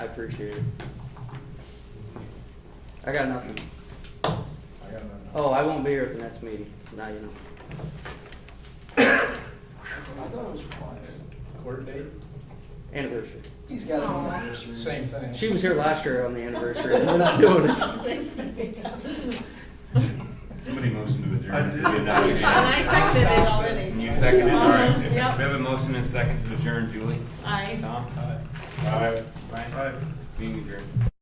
I appreciate it. I got nothing. I got nothing. Oh, I won't be here at the next meeting. Now you know. I thought it was quiet. Court date? Anniversary. He's got it on anniversary. Same thing. She was here last year on the anniversary, and we're not doing it. Somebody motioned to I adjourn. did. Did we adopt it? And I seconded it already. You seconded, all right. Um, We Yep, have a motion and a second to adjourn, Julie. I. Tom? Aye. Brian? Aye. Being adjourned.